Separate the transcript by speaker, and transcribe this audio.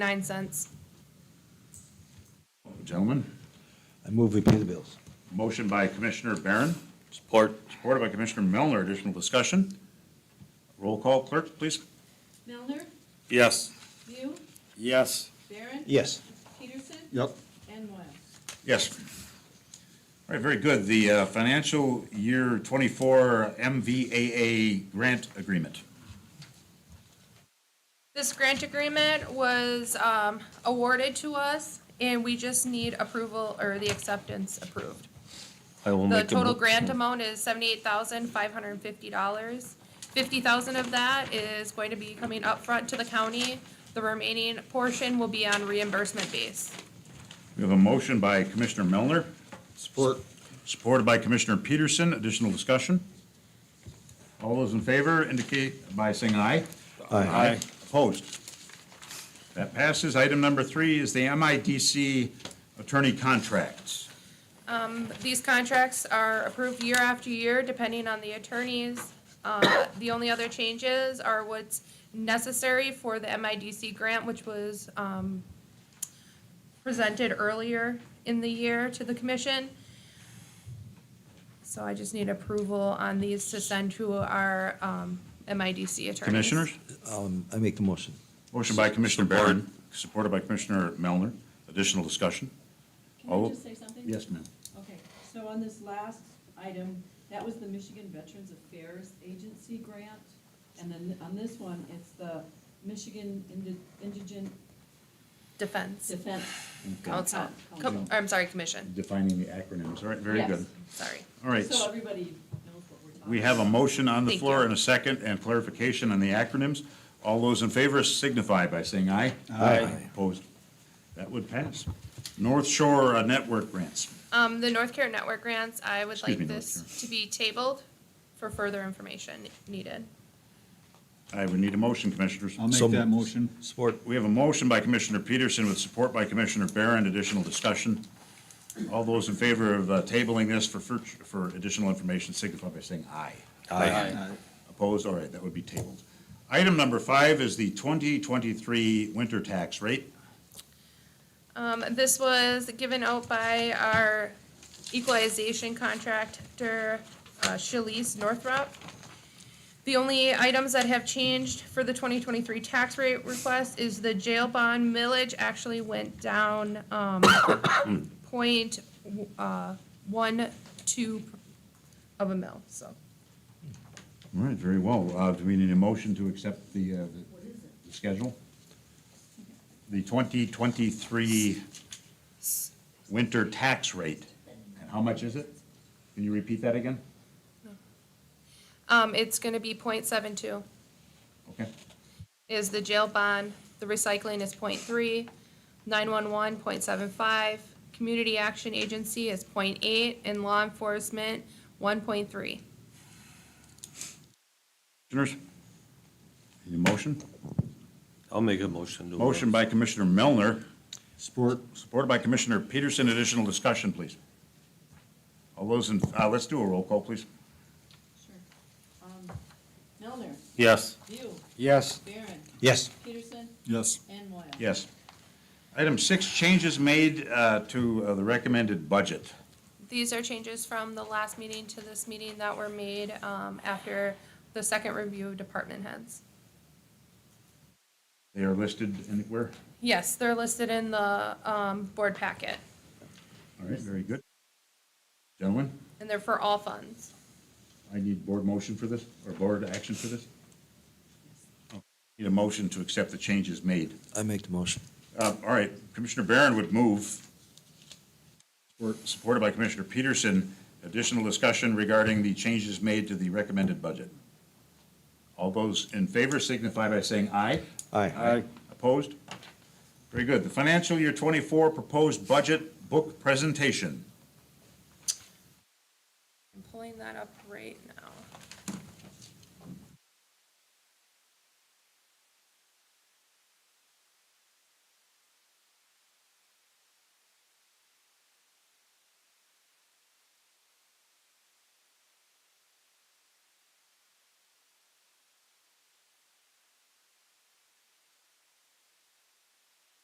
Speaker 1: nine cents.
Speaker 2: Gentlemen,
Speaker 3: I move we pay the bills.
Speaker 2: motion by Commissioner Barron. Support. Supported by Commissioner Melner. Additional discussion? Roll call, clerk, please.
Speaker 4: Melner,
Speaker 2: Yes.
Speaker 4: View,
Speaker 2: Yes.
Speaker 4: Barron.
Speaker 3: Yes.
Speaker 4: Peterson.
Speaker 3: Yep.
Speaker 4: And Moyle.
Speaker 2: Yes. All right, very good. The uh, financial year 24 MVAA grant agreement.
Speaker 1: This grant agreement was um, awarded to us, and we just need approval or the acceptance approved.
Speaker 5: I will
Speaker 1: The
Speaker 5: make a.
Speaker 1: total
Speaker 5: mo-
Speaker 1: grant amount is seventy-eight thousand, five hundred and fifty dollars. Fifty thousand of that is going to be coming upfront to the county. The remaining portion will be on reimbursement base.
Speaker 2: We have a motion by Commissioner Melner,
Speaker 3: Support.
Speaker 2: supported by Commissioner Peterson. Additional discussion? All those in favor indicate by saying aye.
Speaker 3: Aye.
Speaker 2: Opposed? That passes. Item number three is the MIDC attorney contracts.
Speaker 1: These contracts are approved year after year, depending on the attorneys. Uh, The only other changes are what's necessary for the MIDC grant, which was um, presented earlier in the year to the commission. So I just need approval on these to send to our um, MIDC attorneys.
Speaker 2: Commissioners?
Speaker 3: Um, I make the motion.
Speaker 2: Motion by Commissioner Barron, supported by Commissioner Melner. Additional discussion?
Speaker 4: Can
Speaker 2: Oh.
Speaker 4: I just say something?
Speaker 2: ma'am.
Speaker 4: Okay, so on this last item, that was the Michigan Veterans Affairs Agency grant. And then on this one, it's the Michigan Indi- Indigent
Speaker 1: Defense
Speaker 4: Defense.
Speaker 1: Council.
Speaker 4: Coun-
Speaker 1: Com- I'm sorry, commission,
Speaker 2: Defining the acronyms. All right, very
Speaker 4: Yes.
Speaker 2: good.
Speaker 1: sorry.
Speaker 2: All right,
Speaker 4: So everybody knows what we're talking about.
Speaker 2: we have a motion on the
Speaker 1: Thank
Speaker 2: floor
Speaker 1: you.
Speaker 2: and a second and clarification on the acronyms. All those in favor signify by saying aye.
Speaker 3: Aye.
Speaker 2: Opposed? That would pass. North Shore uh, Network grants.
Speaker 1: Um, the North Care Network grants, I would
Speaker 2: Excuse
Speaker 1: like
Speaker 2: me, North
Speaker 1: this to be tabled for further information needed.
Speaker 2: I would need a motion, Commissioners.
Speaker 6: I'll
Speaker 3: So
Speaker 6: make that motion.
Speaker 3: Support.
Speaker 2: We have a motion by Commissioner Peterson with support by Commissioner Barron. Additional discussion. All those in favor of uh, tabling this for, fur- for additional information signify by saying aye.
Speaker 6: Aye.
Speaker 2: Opposed? All right, that would be tabled. Item number five is the 2023 winter tax rate.
Speaker 1: Um, this was given out by our equalization contractor, uh, Shalice Northrup. The only items that have changed for the twenty twenty-three tax rate request is the jail bond millage actually went down, um, point, uh, one, two of a mill, so.
Speaker 2: All right, very well. Uh, Do we need a motion to accept the, uh, the- the schedule? The 2023 winter tax rate. And how much is it? Can you repeat that again?
Speaker 1: Um, it's gonna be point seven two.
Speaker 2: Okay.
Speaker 1: is the jail bond, the recycling is 0.3, 911 0.75, community action agency is 0.8, and law enforcement, one point three.
Speaker 2: Commissioners? Any motion?
Speaker 5: I'll make a motion to.
Speaker 2: Motion by Commissioner Melner,
Speaker 6: Support.
Speaker 2: supported by Commissioner Peterson. Additional discussion, please. All those in, uh, let's do a roll call, please.
Speaker 4: Sure. Um, Melner,
Speaker 5: Yes.
Speaker 4: View,
Speaker 5: Yes.
Speaker 4: Barron,
Speaker 3: Yes.
Speaker 4: Peterson,
Speaker 6: Yes.
Speaker 4: and Moyle.
Speaker 2: Yes. Item six, changes made uh, to uh, the recommended budget.
Speaker 1: These are changes from the last meeting to this meeting that were made, um, after the second review of department heads.
Speaker 2: They are listed anywhere?
Speaker 1: Yes, they're listed in the, um, board packet,
Speaker 2: All right, very good. Gentlemen,
Speaker 1: and they're for all funds.
Speaker 2: I need board motion for this, or board action for this? Oh, Need a motion to accept the changes made.
Speaker 3: I make the motion.
Speaker 2: Uh, All right, Commissioner Barron would move, We're supported by Commissioner Peterson, additional discussion regarding the changes made to the recommended budget. All those in favor signify by saying aye.
Speaker 3: Aye.
Speaker 2: Opposed? Very good. The financial year 24 proposed budget book presentation.
Speaker 1: I'm pulling that up right